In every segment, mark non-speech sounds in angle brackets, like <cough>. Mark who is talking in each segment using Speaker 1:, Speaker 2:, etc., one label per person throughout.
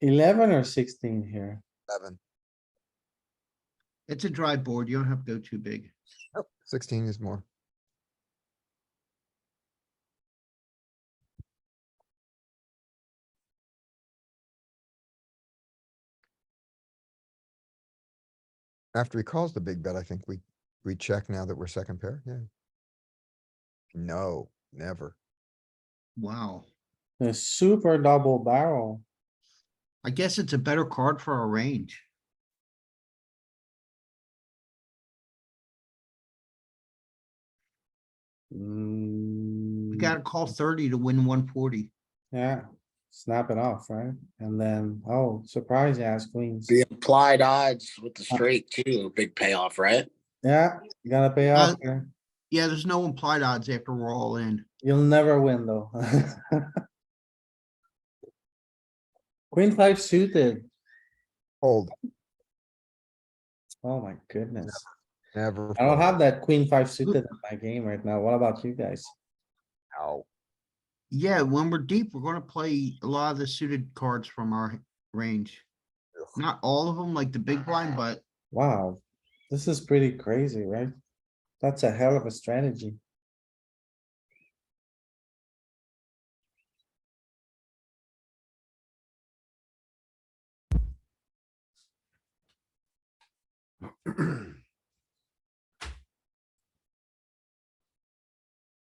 Speaker 1: Eleven or sixteen here?
Speaker 2: Eleven.
Speaker 3: It's a dry board. You don't have to go too big.
Speaker 2: Sixteen is more. After he calls the big bet, I think we, we check now that we're second pair, yeah. No, never.
Speaker 3: Wow.
Speaker 1: The super double barrel.
Speaker 3: I guess it's a better card for our range.
Speaker 1: Mm,
Speaker 3: We
Speaker 4: Hmm.
Speaker 3: gotta call thirty to win one forty.
Speaker 1: Mm, Yeah, snap it off, right? And then, oh, surprise ass queens.
Speaker 5: The implied odds with the straight too, a big payoff, right?
Speaker 1: Yeah, you gotta pay off
Speaker 3: Uh,
Speaker 1: here.
Speaker 3: Yeah, there's no implied odds after we're all in.
Speaker 1: You'll never win though. <laughs> Queen five suited.
Speaker 2: Hold,
Speaker 1: Oh my goodness.
Speaker 2: never.
Speaker 1: I don't
Speaker 2: fold.
Speaker 1: have that queen five suited in my game right now. What about you guys?
Speaker 2: Ow.
Speaker 3: Yeah, when we're deep, we're gonna play a lot of the suited cards from our h- range.
Speaker 2: Ugh.
Speaker 3: Not all of them, like the big
Speaker 4: <sighs>
Speaker 3: blind, but
Speaker 1: Wow, this is pretty crazy, right? That's a hell of a strategy. <clears throat>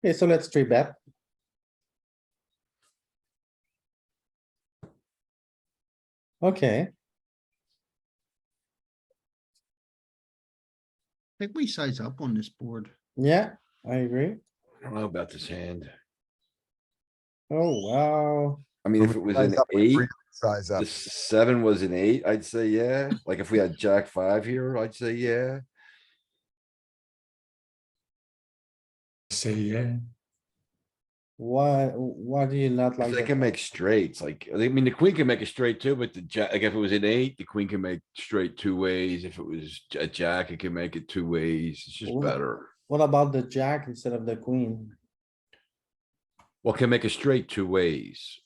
Speaker 1: Okay, so let's three bet. Okay,
Speaker 3: I think we size up on this board.
Speaker 1: yeah, I agree.
Speaker 4: I don't know about this hand.
Speaker 1: Oh, wow.
Speaker 4: I mean, if it was
Speaker 2: Size
Speaker 4: an
Speaker 2: up, we
Speaker 4: eight,
Speaker 2: really Size up.
Speaker 4: the seven was an eight, I'd say yeah. Like if we had jack five here, I'd say yeah.
Speaker 6: Say yeah.
Speaker 1: Why, why do you not like?
Speaker 4: Cause they
Speaker 1: that?
Speaker 4: can make straights, like, I mean, the queen can make a straight too, but the jack, like if it was an eight, the queen can make straight two ways. If it was a jack, it can make it two ways. It's just
Speaker 1: Ooh.
Speaker 4: better.
Speaker 1: What about the jack instead of the queen?
Speaker 4: Well, can make a straight two ways.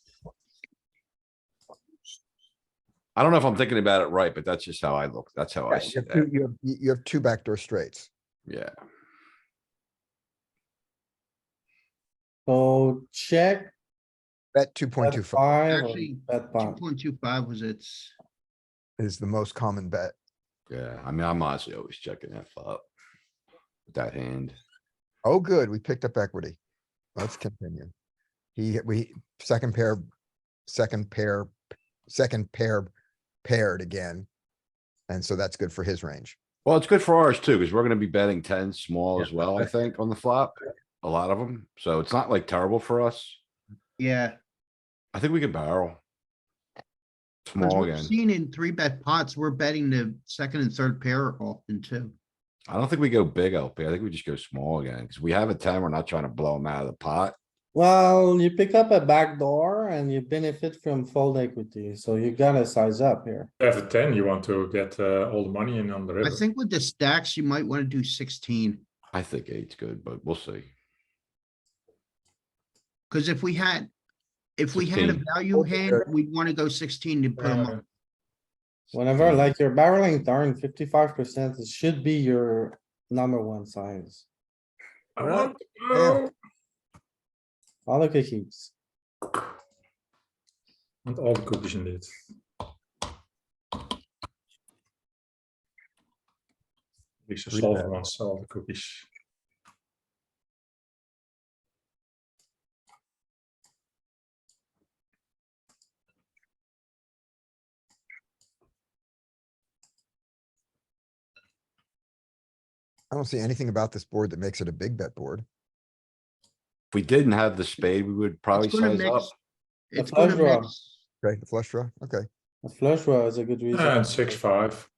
Speaker 4: I don't know if I'm thinking about it right, but that's just how I look. That's how I
Speaker 2: Yeah,
Speaker 4: see
Speaker 2: You have two-
Speaker 4: that.
Speaker 2: you have- you- you have two backdoor straights.
Speaker 4: Yeah,
Speaker 1: So check,
Speaker 2: Bet two point
Speaker 1: bet
Speaker 2: two five
Speaker 1: five, or
Speaker 3: Actually,
Speaker 1: bet
Speaker 3: Two
Speaker 1: pot.
Speaker 3: point two five was its,
Speaker 2: is the most common bet.
Speaker 4: yeah. I mean, I'm honestly always checking that flop. with That hand.
Speaker 2: Oh, good, we picked up equity. Let's continue. He, we, second pair, second pair, second pair paired again. And so that's good for his range.
Speaker 4: Well, it's good for ours too, because we're gonna be betting ten small
Speaker 2: Yeah,
Speaker 4: as well, I
Speaker 2: that's-
Speaker 4: think, on the flop. A lot of them, so it's not like terrible for us.
Speaker 3: yeah.
Speaker 4: I think we can barrel.
Speaker 3: 'cause
Speaker 4: Small
Speaker 3: we've
Speaker 4: again.
Speaker 3: Seen in three bet pots, we're betting the second and third pair often too.
Speaker 4: I don't think we go big LP. I think we just go small again, because we have a ten, we're not trying to blow them out of the pot.
Speaker 1: Well, you pick up a back door and you benefit from fold equity, so you gotta size up here.
Speaker 6: You have a 10, you want to get uh, all the money in on the river.
Speaker 3: I think with the stacks, you might wanna do sixteen.
Speaker 4: I think eight's good, but we'll see.
Speaker 3: Cause if we had, if we had a
Speaker 4: 16.
Speaker 3: value hand, we'd wanna go sixteen to put them
Speaker 6: Uh,
Speaker 3: up.
Speaker 1: Whenever, like, you're barreling darn fifty-five percent, it should be your number one size.
Speaker 6: I want to
Speaker 2: Yeah.
Speaker 3: Eh.
Speaker 6: go.
Speaker 1: All the cookies.
Speaker 6: And all the cookies indeed. It's a
Speaker 2: Three
Speaker 6: solve
Speaker 2: bet.
Speaker 6: one, so all the cookies.
Speaker 2: I don't see anything about this board that makes it a big bet board.
Speaker 4: If we didn't have the spade, we would probably
Speaker 3: gonna
Speaker 4: size
Speaker 3: mix-
Speaker 4: up.
Speaker 1: The
Speaker 3: It's gonna
Speaker 1: flush draw.
Speaker 3: mix.
Speaker 2: Okay, the flush draw, okay.
Speaker 1: A flush draw is a good reason.
Speaker 6: And Uh, six, five.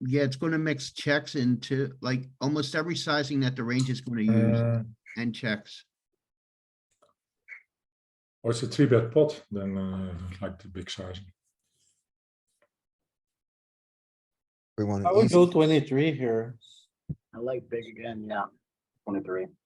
Speaker 3: Yeah, it's gonna mix checks into like almost every sizing that the range is gonna use
Speaker 6: Uh,
Speaker 3: and checks.
Speaker 6: or it's a three bet pot, then uh, like the big size.
Speaker 2: We want
Speaker 1: I
Speaker 2: an
Speaker 1: would go
Speaker 2: easy,
Speaker 1: twenty-three here.
Speaker 5: I like big again, yeah. Twenty-three.